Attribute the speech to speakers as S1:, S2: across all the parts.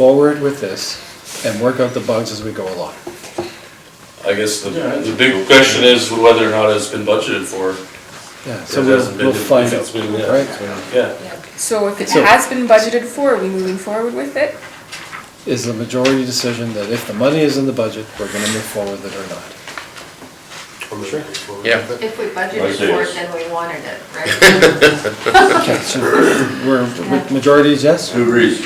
S1: forward with this and work out the bugs as we go along.
S2: I guess the, the big question is whether or not it's been budgeted for.
S1: Yeah,
S2: It
S1: so we'll,
S2: hasn't been-
S1: we'll find
S2: if
S1: out,
S2: it's been- yeah, it's
S1: right?
S2: been- Yeah,
S3: So if it
S1: So-
S3: has been budgeted for, are we moving forward with it?
S1: Is the majority decision that if the money is in the budget, we're gonna move forward with it or not?
S4: Yeah.
S5: If we budgeted
S2: Like
S5: for
S2: this.
S5: it, then we wanted it, right?
S1: Okay, so we're, ma- majority is yes?
S6: Who agrees?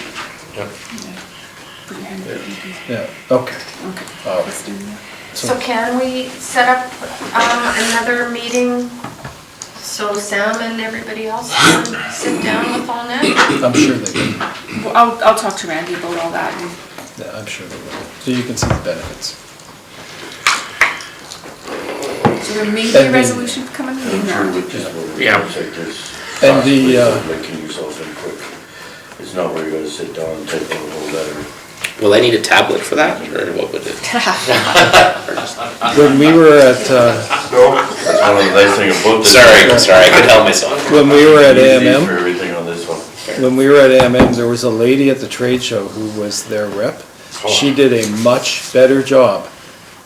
S1: Yeah, okay. Um,
S3: Okay.
S1: All right.
S3: Let's do that.
S5: So can we set up um, another meeting so Sam and everybody else can sit down with all that?
S1: I'm sure they will,
S3: Well, I'll, I'll talk to Randy about all that and
S1: yeah, I'm sure they will, so you can see the benefits.
S3: so there may be a
S1: Pending.
S3: resolution coming in
S6: I'm sure
S3: now.
S6: we just will
S4: Yeah.
S6: take this.
S1: And the, uh,
S6: Making yourself in quick. It's not where you're gonna sit down and type out a whole letter.
S4: Will I need a tablet for that, or what would it?
S1: When we were at, uh,
S6: That's one of the nice things about this.
S4: Sorry, sorry, I couldn't help myself.
S1: when we were at
S6: Easy For
S1: AMM,
S6: everything on this one.
S1: when we were at AMM, there was a lady at the trade show who was their rep. She did a much better job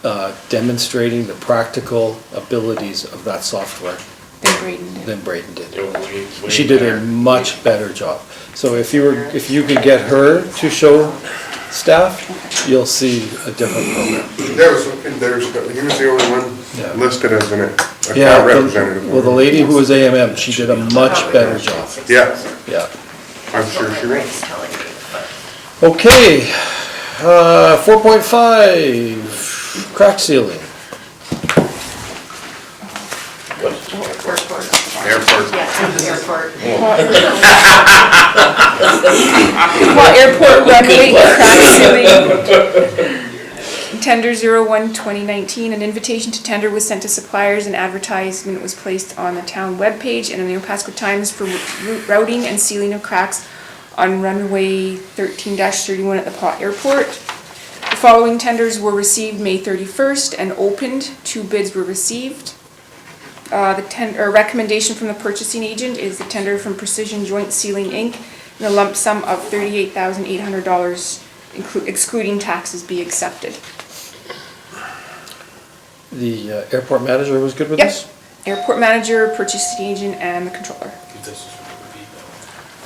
S1: uh, demonstrating the practical abilities of that software
S3: They're grading it.
S1: than Braden did. She did a much better job. So if you were, if you could get her to show staff, you'll see a different program.
S7: There was, there's, he was the only
S1: Yeah.
S7: one listed as an, a
S1: Yeah,
S7: town
S1: the-
S7: representative.
S1: well, the lady who was AMM, she did a much better job,
S7: Yeah,
S1: yeah.
S7: I'm sure she was.
S5: Ray's telling me, but-
S1: Okay, uh, four point five, crack ceiling.
S5: Airport.
S4: Airport.
S5: Yeah, airport.
S3: Well, airport runway crack ceiling. Tender 01-2019, an invitation to tender was sent to suppliers and advertisement was placed on the town webpage and in the Opasco Times for route routing and sealing of cracks on runway thirteen thirty-one at the Paw Airport. The following tenders were received May thirty-first and opened, two bids were received. Uh, The tender, or recommendation from the purchasing agent is the tender from Precision Joint Sealing Inc. in a lump sum of thirty-eight thousand eight hundred dollars excluding taxes be accepted.
S1: The uh, airport manager was good with
S3: Yep,
S1: this?
S3: airport manager, purchasing agent, and the controller.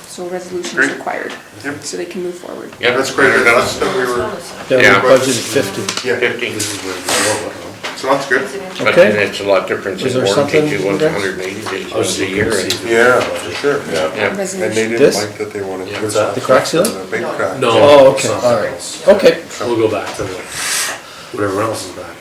S3: So a resolution is
S7: Great.
S3: required,
S7: Yep.
S3: so they can move forward.
S7: Yeah, that's great, that's that we were,
S1: Yeah,
S4: Yeah.
S1: we budgeted fifty.
S7: yeah, so that's good.
S4: But
S1: Okay.
S4: then it's a lot different
S1: Is
S4: than
S1: there
S4: warranty,
S1: something,
S4: two one's
S1: Rex?
S4: hundred and eighty days, one's a year. and-
S7: Yeah, for sure.
S4: Yeah.
S7: And they
S3: Resolution.
S7: didn't
S1: This?
S7: like that they wanted. to-
S1: The crack ceiling?
S7: The Big crack.
S8: No.
S1: Oh, okay, all right, okay,
S8: We'll go back to the, whatever else is back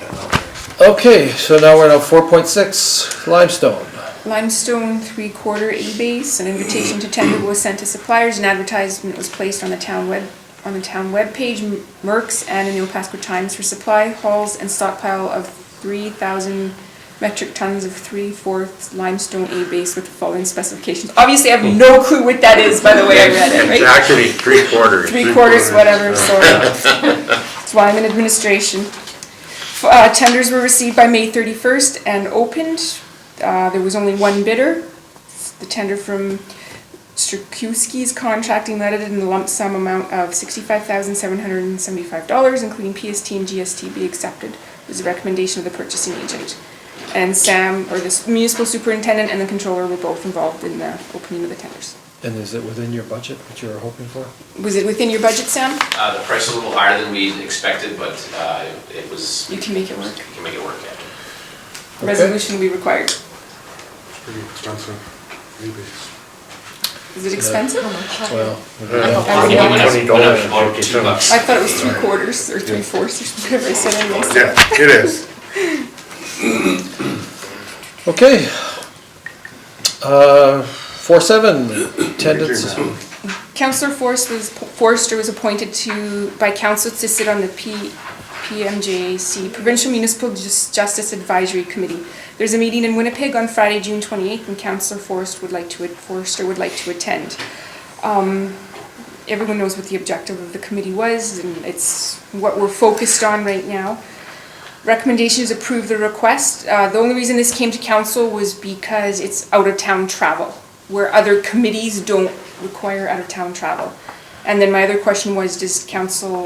S8: then.
S1: okay, so now we're on four point six, limestone.
S3: Limestone three-quarter A-base, an invitation to tender was sent to suppliers, and advertisement was placed on the town web, on the town webpage, Merck's and in the Opasko Times for supply hauls and stockpile of three thousand metric tons of three-fourths limestone A-base with the following specifications. Obviously, I have no clue what that is, by the way I read it, right?
S4: It's actually three quarters.
S3: Three quarters, whatever, sorry. That's why I'm in administration. F- Uh, tenders were received by May thirty-first and opened. Uh, there was only one bidder. It's The tender from Strukowski's Contracting Limited in the lump sum amount of sixty-five thousand seven hundred and seventy-five dollars, including PST and GST be accepted, was the recommendation of the purchasing agent. And Sam, or the s- municipal superintendent and the controller were both involved in the opening of the tenders.
S1: And is it within your budget, what you were hoping for?
S3: Was it within your budget, Sam?
S9: Uh, the price is a little higher than we expected, but, uh, it was,
S3: You can make it work.
S9: we can make it work, yeah.
S1: Okay.
S3: Resolution will be required.
S7: Pretty expensive. Maybe.
S3: Is it expensive?
S1: Well,
S3: I
S9: It went up-
S4: $20
S9: went up about
S4: fifty
S9: two bucks.
S3: I thought it was three quarters or three fourths or whatever I said anyway. so-
S7: Yeah, it is.
S1: okay. Uh, four seven, attendance,
S3: Counselor Forrest was, Forrester was appointed to, by council to sit on the P, PMJC, Provincial Municipal Jus- Justice Advisory Committee. There's a meeting in Winnipeg on Friday, June twenty-eighth, and Counselor Forrest would like to, Forrester would like to attend. Um, everyone knows what the objective of the committee was, and it's what we're focused on right now. Recommendation is approve the request. Uh, the only reason this came to council was because it's out-of-town travel, where other committees don't require out-of-town travel. And then my other question was, does council